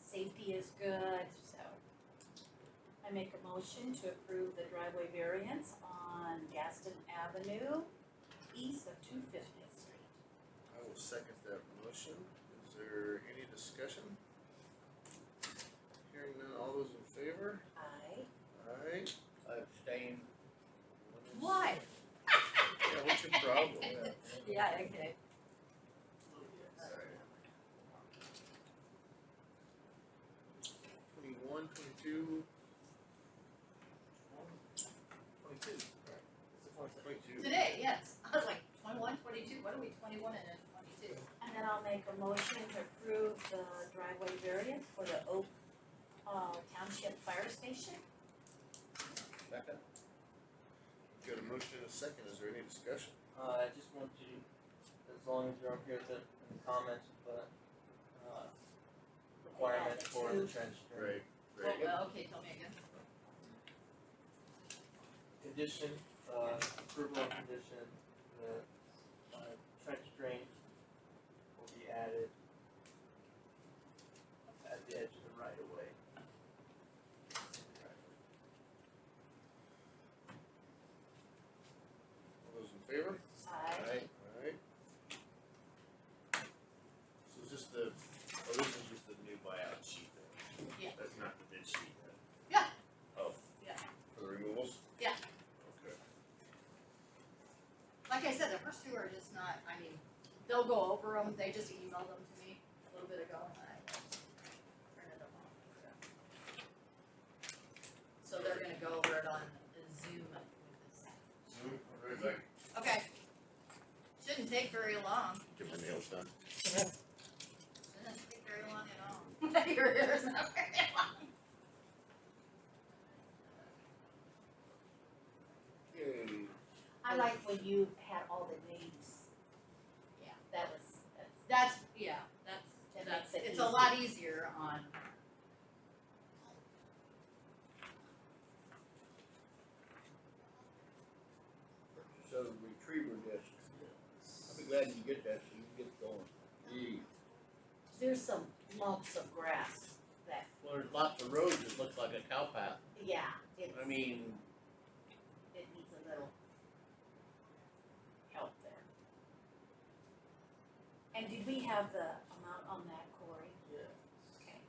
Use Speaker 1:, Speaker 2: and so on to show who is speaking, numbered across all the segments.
Speaker 1: safety is good, so. I make a motion to approve the driveway variance on Gaston Avenue, east of two fiftieth street.
Speaker 2: I will second that motion. Is there any discussion? Hearing none, all those in favor?
Speaker 1: Aye.
Speaker 2: Aye.
Speaker 3: I abstain.
Speaker 2: One is- Yeah, what's your problem? Yeah.
Speaker 1: Yeah, okay.
Speaker 2: Sorry. Twenty-one, twenty-two. Twenty-two. Twenty-two.
Speaker 4: Today, yes. I was like, twenty-one, twenty-two, what are we, twenty-one and then twenty-two?
Speaker 1: And then I'll make a motion to approve the driveway variance for the Oak, uh, Township Fire Station.
Speaker 3: Second?
Speaker 2: Got a motion and a second. Is there any discussion?
Speaker 5: Uh, I just want to, as long as you're up here with it in the comments, but, uh, requirement for the trench drain.
Speaker 2: Right,
Speaker 4: Well,
Speaker 2: right.
Speaker 4: well, Oh, okay, tell me again.
Speaker 5: Condition, uh, approval of condition, the, uh, trench drain will be added at the edge of the right of way.
Speaker 2: All those in favor?
Speaker 1: Aye.
Speaker 2: Alright. So is this the, oh, this is just the new buyout sheet then?
Speaker 4: Yeah.
Speaker 2: That's not the bid sheet then?
Speaker 4: Yeah.
Speaker 2: Oh.
Speaker 4: Yeah.
Speaker 2: For the removals?
Speaker 4: Yeah.
Speaker 2: Okay.
Speaker 4: Like I said, the first two are just not, I mean, they'll go over them, they just emailed them to me a little bit ago and I printed them off, so. So they're gonna go over it on Zoom with this.
Speaker 2: Zoom, right back.
Speaker 4: Okay. Shouldn't take very long.
Speaker 2: Get my nails done.
Speaker 4: Shouldn't take very long at all. Your hair's not very long.
Speaker 2: Yay.
Speaker 1: I like when you had all the names.
Speaker 4: Yeah.
Speaker 1: That was, that's,
Speaker 4: That's, yeah,
Speaker 1: That
Speaker 4: that's,
Speaker 1: makes
Speaker 4: that's,
Speaker 1: it
Speaker 4: it's a lot easier on.
Speaker 3: So the retriever disc. I'll be glad you get that so you can get going. Gee,
Speaker 1: there's some lumps of grass that,
Speaker 3: well, there's lots of roads that look like a cow path.
Speaker 1: yeah, it's,
Speaker 3: I mean,
Speaker 1: it needs a little help there. And did we have the amount on that, Corey?
Speaker 5: Yeah.
Speaker 1: Okay.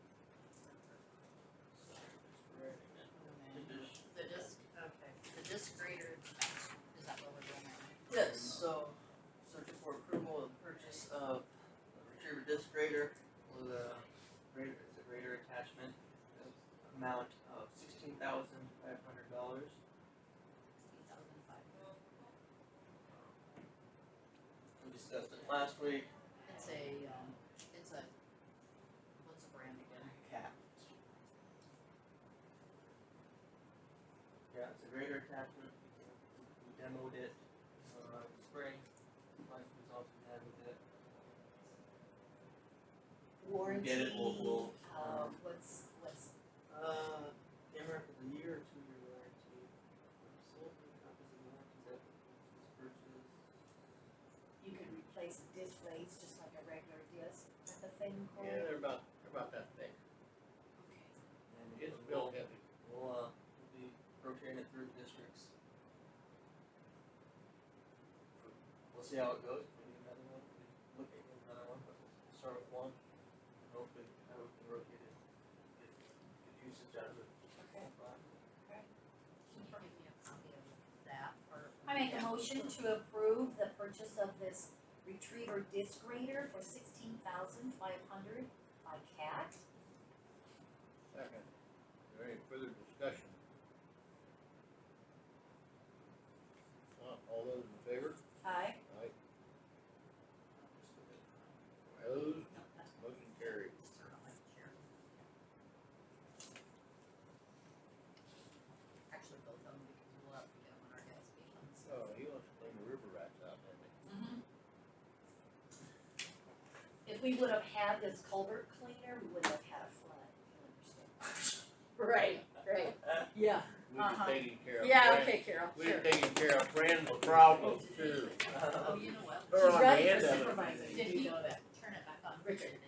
Speaker 5: Condition.
Speaker 4: The disc, okay, the disc grader, um, is that what we're doing right
Speaker 6: Yes, so searching for approval of purchase of a retriever disc grader
Speaker 5: with a greater, it's a greater attachment, uh, amount of sixteen thousand five hundred dollars.
Speaker 4: now?
Speaker 5: We discussed it last week,
Speaker 4: It's a, um, it's a, what's the brand again?
Speaker 5: cap. Yeah, it's a greater attachment, we demoed it, uh, spring, like results we had with it.
Speaker 1: Warranty,
Speaker 5: get it, we'll- we'll,
Speaker 1: uh, what's, what's,
Speaker 5: Uh, camera for the year or two year warranty, sold for copies of warranties that was purchased.
Speaker 1: you can replace disc blades just like a regular disc type of thing, Corey?
Speaker 3: yeah, they're about, they're about that thick.
Speaker 1: Okay,
Speaker 5: And
Speaker 3: It's
Speaker 5: we'll-
Speaker 3: built heavy.
Speaker 5: We'll, uh, we'll be rotating it through districts. We'll see how it goes, maybe another one, we look at another one, but we'll start with one, and hopefully, how we can rotate it, get, get usage out of it.
Speaker 1: okay.
Speaker 4: Can you give me a copy of that or?
Speaker 1: I make a motion to approve the purchase of this retriever disc grater for sixteen thousand five hundred by CAT.
Speaker 3: Second. Is there any further discussion? Not all those in favor?
Speaker 1: Aye.
Speaker 3: Aye. Opposed? Motion carried.
Speaker 4: Actually, both of them, because we'll have to get them on our gas stations.
Speaker 3: Oh, he wants to clean the river rats out, doesn't he?
Speaker 1: If we would have had this culvert cleaner, we would have had a flood, you understand?
Speaker 4: Right, right, yeah,
Speaker 3: We've
Speaker 4: Uh-huh.
Speaker 3: been taking care of.
Speaker 4: yeah,
Speaker 3: Fran-
Speaker 4: okay, Carol,
Speaker 3: We've
Speaker 4: sure.
Speaker 3: been taking care of Fran's problems too.
Speaker 5: Uh,
Speaker 4: Oh, you know what?
Speaker 3: Or
Speaker 1: She's
Speaker 3: on the
Speaker 1: ready for
Speaker 3: end of it.
Speaker 1: supervising,
Speaker 4: Did
Speaker 1: you
Speaker 4: he
Speaker 1: know that.
Speaker 4: turn it back on, Richard did.